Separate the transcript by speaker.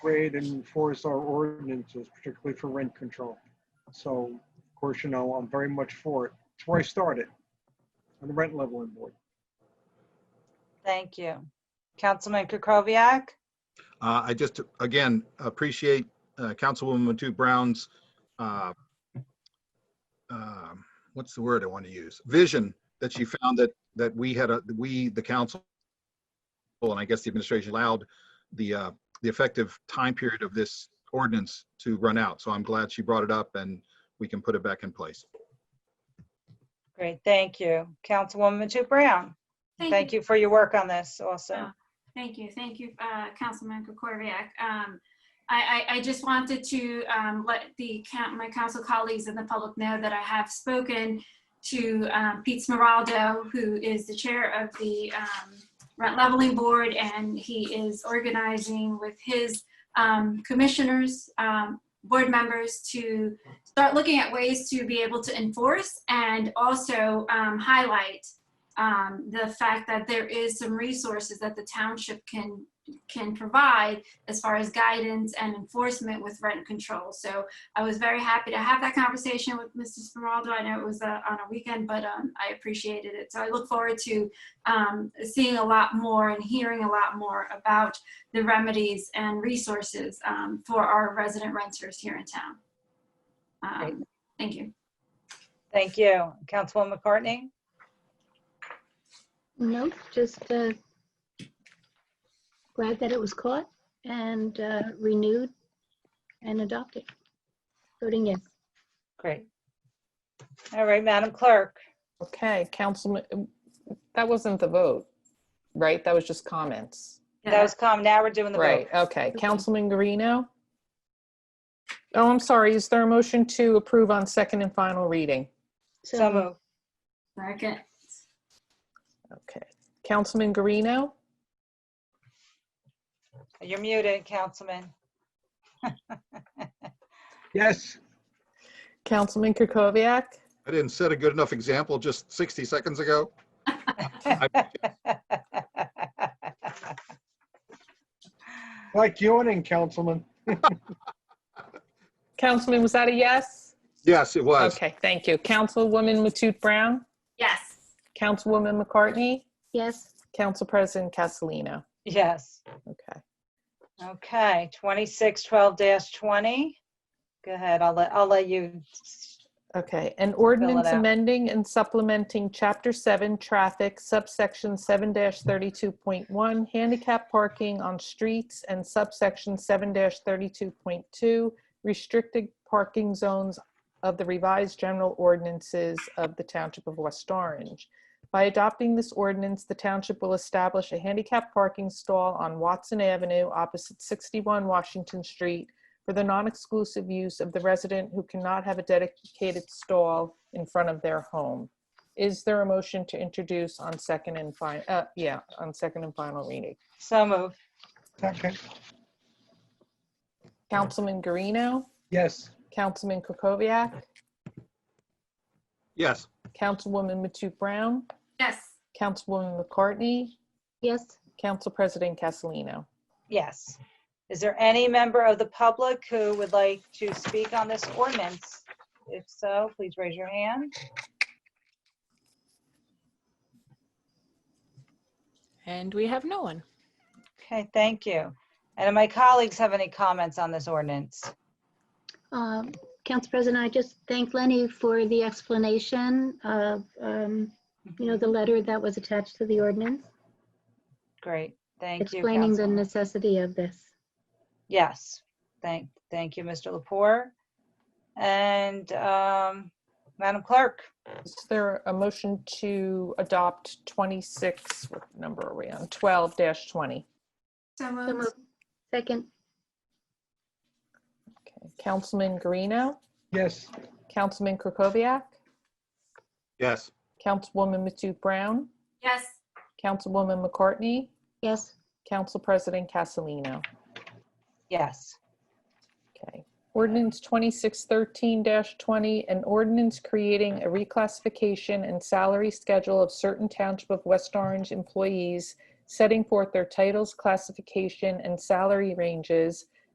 Speaker 1: grade and enforce our ordinances, particularly for rent control. So, of course, you know, I'm very much for it. It's where I started, on the rent leveling board.
Speaker 2: Thank you. Councilman Kukoviac?
Speaker 3: Uh, I just, again, appreciate uh, Councilwoman Matu Brown's, uh, um, what's the word I want to use? Vision that she found that, that we had a, we, the council, and I guess the administration allowed the, uh, the effective time period of this ordinance to run out. So I'm glad she brought it up and we can put it back in place.
Speaker 2: Great, thank you. Councilwoman Matu Brown? Thank you for your work on this also.
Speaker 4: Yeah. Thank you, thank you, uh, Councilman Kukorviac. Um, I, I, I just wanted to um, let the, coun- my council colleagues and the public know that I have spoken to um, Pete Smeraldo, who is the chair of the um, Rent Leveling Board, and he is organizing with his um, commissioners, um, board members, to start looking at ways to be able to enforce and also um, highlight um, the fact that there is some resources that the township can can provide as far as guidance and enforcement with rent control. So I was very happy to have that conversation with Mr. Smeraldo. I know it was uh, on a weekend, but um, I appreciated it. So I look forward to um, seeing a lot more and hearing a lot more about the remedies and resources um, for our resident renters here in town. Um, thank you.
Speaker 2: Thank you. Councilwoman McCartney?
Speaker 5: Nope, just uh, glad that it was caught and uh, renewed and adopted. Voting yes.
Speaker 2: Great. All right, Madam Clerk.
Speaker 6: Okay, Councilman, um, that wasn't the vote, right? That was just comments.
Speaker 2: That was calm. Now we're doing the vote.
Speaker 6: Right, okay. Councilman Guarino? Oh, I'm sorry. Is there a motion to approve on second and final reading?
Speaker 2: So moved.
Speaker 4: Second.
Speaker 6: Okay. Councilman Guarino?
Speaker 2: You're muted, Councilman.
Speaker 1: Yes,
Speaker 6: Councilman Kukoviac?
Speaker 3: I didn't set a good enough example just 60 seconds ago.
Speaker 1: like yawning, Councilman.
Speaker 6: Councilman, was that a yes?
Speaker 3: Yes, it was.
Speaker 6: Okay, thank you. Councilwoman Matute Brown?
Speaker 4: Yes.
Speaker 6: Councilwoman McCartney?
Speaker 5: Yes,
Speaker 6: Council President Castellino?
Speaker 2: Yes.
Speaker 6: Okay.
Speaker 2: Okay, 2612-20. Go ahead, I'll let, I'll let you.
Speaker 6: Okay, an ordinance
Speaker 2: out.
Speaker 6: amending and supplementing Chapter 7 Traffic subsection 7-32.1 Handicap Parking on Streets and subsection 7-32.2 Restricted Parking Zones of the Revised General Ordinances of the Township of West Orange. By adopting this ordinance, the township will establish a handicap parking stall on Watson Avenue opposite 61 Washington Street for the non-exclusive use of the resident who cannot have a dedicated stall in front of their home. Is there a motion to introduce on second and final, uh, yeah, on second and final reading?
Speaker 2: So moved.
Speaker 1: Second,
Speaker 6: Councilman Guarino,
Speaker 1: yes,
Speaker 6: Councilman Kukoviac,
Speaker 3: Yes,
Speaker 6: Councilwoman Matute Brown,
Speaker 4: Yes.
Speaker 6: Councilwoman McCartney,
Speaker 5: yes,
Speaker 6: Council President Castellino.
Speaker 2: Yes. Is there any member of the public who would like to speak on this ordinance? If so, please raise your hand.
Speaker 7: And we have no one.
Speaker 2: Okay, thank you. And do my colleagues have any comments on this ordinance?
Speaker 5: Um, Council President, I just thank Lenny for the explanation of, um, you know, the letter that was attached to the ordinance,
Speaker 2: Great, thank you.
Speaker 5: explaining the
Speaker 2: Councilwoman.
Speaker 5: necessity of this.
Speaker 2: Yes, thank, thank you, Mr. Lepore. And um, Madam Clerk,
Speaker 6: Is there a motion to adopt 26, what number are we on? 12-20.
Speaker 4: So
Speaker 5: So
Speaker 4: moved.
Speaker 5: moved. Second,
Speaker 6: Okay, Councilman Guarino,
Speaker 1: yes,
Speaker 6: Councilman Kukoviac,
Speaker 3: yes.
Speaker 6: Councilwoman Matute Brown,
Speaker 4: Yes.
Speaker 6: Councilwoman McCartney,
Speaker 5: yes,
Speaker 6: Council President Castellino.
Speaker 2: yes.
Speaker 6: Okay. Ordinance 2613-20, an ordinance creating a reclassification and salary schedule of certain Township of West Orange employees, setting forth their titles, classification, and salary ranges,